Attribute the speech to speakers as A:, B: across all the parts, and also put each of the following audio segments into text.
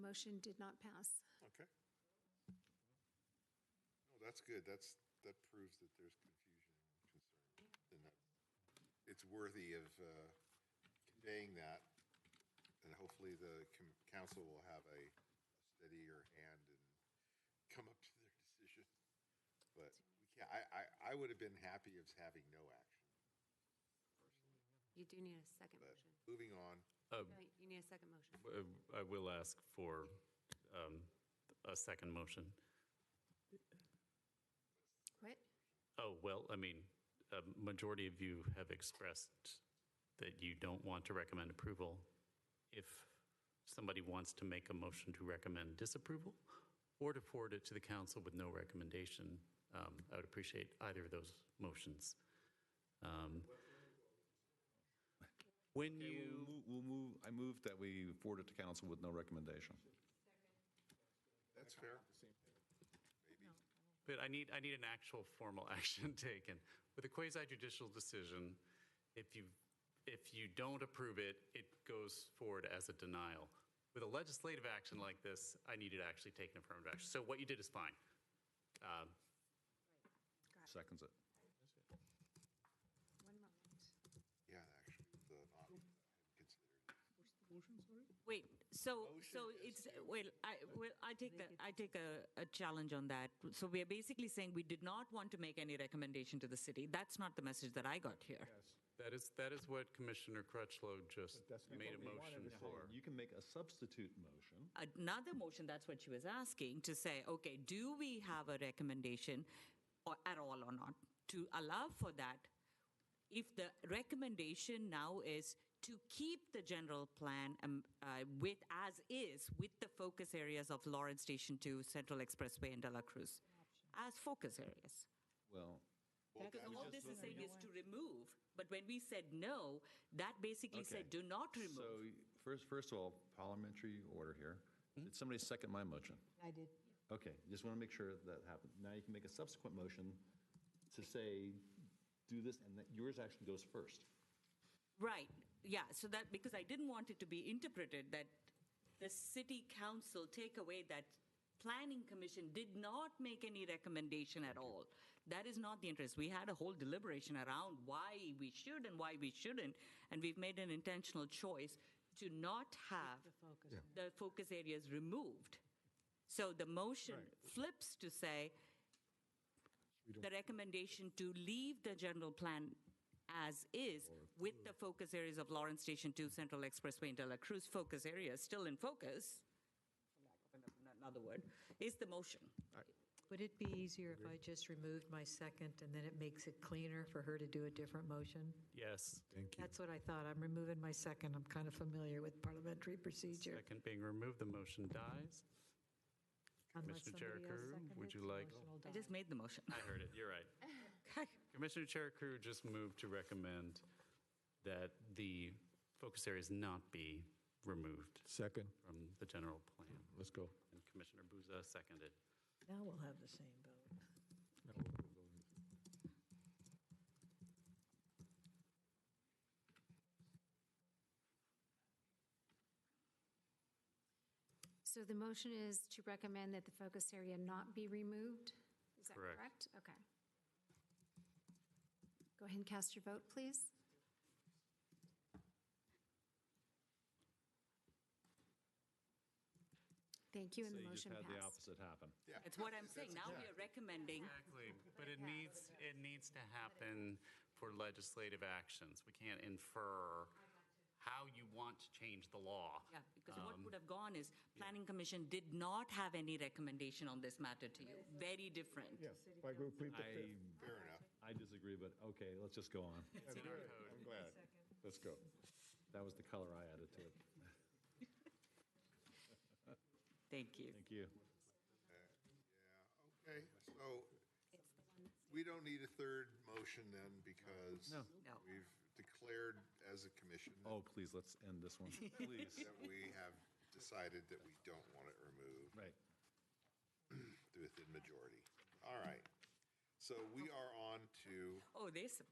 A: motion did not pass.
B: Okay. No, that's good. That's, that proves that there's confusion and concern. And that it's worthy of uh, conveying that. And hopefully the com- council will have a steadier hand and come up to their decision. But we can't, I, I, I would have been happy of having no action.
C: You do need a second
B: But
C: motion.
B: moving on,
C: Right, You need a second motion.
D: Uh, I will ask for um, a second motion.
C: What?
D: Oh, well, I mean, a majority of you have expressed that you don't want to recommend approval. If somebody wants to make a motion to recommend disapproval or to forward it to the council with no recommendation, um, I would appreciate either of those motions. Um, When
E: Okay,
D: you.
E: We'll move- we'll move, I move that we forward it to council with no recommendation.
B: that's fair. Maybe.
D: But I need, I need an actual formal action taken. With a quasi judicial decision, if you, if you don't approve it, it goes forward as a denial. With a legislative action like this, I need to actually take an affirmative action. So what you did is fine. Um,
E: Seconds it.
C: One moment.
B: Yeah, actually, the, not considered.
F: Wait, so,
B: Motion
F: so
B: is
F: it's,
B: to-
F: well, I, well, I take that, I take a, a challenge on that. So we are basically saying we did not want to make any recommendation to the city. That's not the message that I got here.
D: That is, that is what Commissioner Crutchlow just
G: That's not
D: made a
G: what we wanted to
D: motion
G: say.
D: for.
E: You can make a substitute motion.
F: Another motion, that's what she was asking, to say, okay, do we have a recommendation or, at all or not? To allow for that, if the recommendation now is to keep the general plan um, uh, with, as is, with the focus areas of Lawrence Station 2, Central Expressway, and De La Cruz, as focus areas.
E: Well,
B: Well,
F: Because
B: that-
F: all this is saying is to remove, but when we said no, that basically
E: okay.
F: said do not remove.
E: So first, first of all, parliamentary order here. Did somebody second my motion?
H: I did.
E: Hmm? Okay, just want to make sure that happened. Now you can make a subsequent motion to say, do this, and that yours actually goes first.
F: Right, yeah, so that, because I didn't want it to be interpreted that the city council take away that planning commission did not make any recommendation at all. That is not the interest. We had a whole deliberation around why we should and why we shouldn't, and we've made an intentional choice to not have
H: The focus. Yeah.
F: the focus areas removed. So the motion flips to say the recommendation to leave the general plan as is with the focus areas of Lawrence Station 2, Central Expressway, and De La Cruz focus areas still in focus, for lack of another word, is the motion.
H: Would it be easier if I just removed my second and then it makes it cleaner for her to do a different motion?
D: Yes,
H: That's what I thought. I'm removing my second. I'm kind of familiar with parliamentary procedure.
D: second being removed, the motion dies.
H: Unless
D: Commissioner
H: somebody else
D: Jericho, would
H: seconded
D: you
H: the
D: like-
H: motion will
F: I
H: die.
F: just made the motion.
D: I heard it, you're right.
F: Okay.
D: Commissioner Cherikou just moved to recommend that the focus areas not be removed
G: Second,
D: from the general plan.
G: let's go.
D: And Commissioner Buza seconded.
H: Now we'll have the same vote.
A: So the motion is to recommend that the focus area not be removed? Is that correct?
D: Correct.
A: Okay. Go ahead and cast your vote, please. Thank you, and the motion
E: So you just had the
A: passed.
E: opposite happen.
B: yeah.
F: That's what I'm
B: That's
F: saying. Now we are recommending
D: Exactly, but it needs, it needs to happen for legislative actions. We can't infer how you want to change the law.
F: Yeah, because what would have gone is, planning commission did not have any recommendation on this matter to you. Very different.
G: Yeah, like we plead the
E: I,
G: fifth.
B: Fair enough.
E: I disagree, but okay, let's just go on.
D: It's in our code.
G: I'm glad. Let's go.
E: That was the color I added to it.
F: Thank you.
E: Thank you.
B: Okay, so we don't need a third motion then because
E: No.
F: No.
B: we've declared as a commission
E: Oh, please, let's end this one, please.
B: that we have decided that we don't want it removed
E: Right.
B: with the majority. All right. So we are on to,
F: Oh, they, s-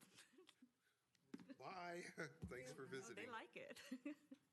B: bye, thanks for
F: oh, they
B: visiting.
F: like it.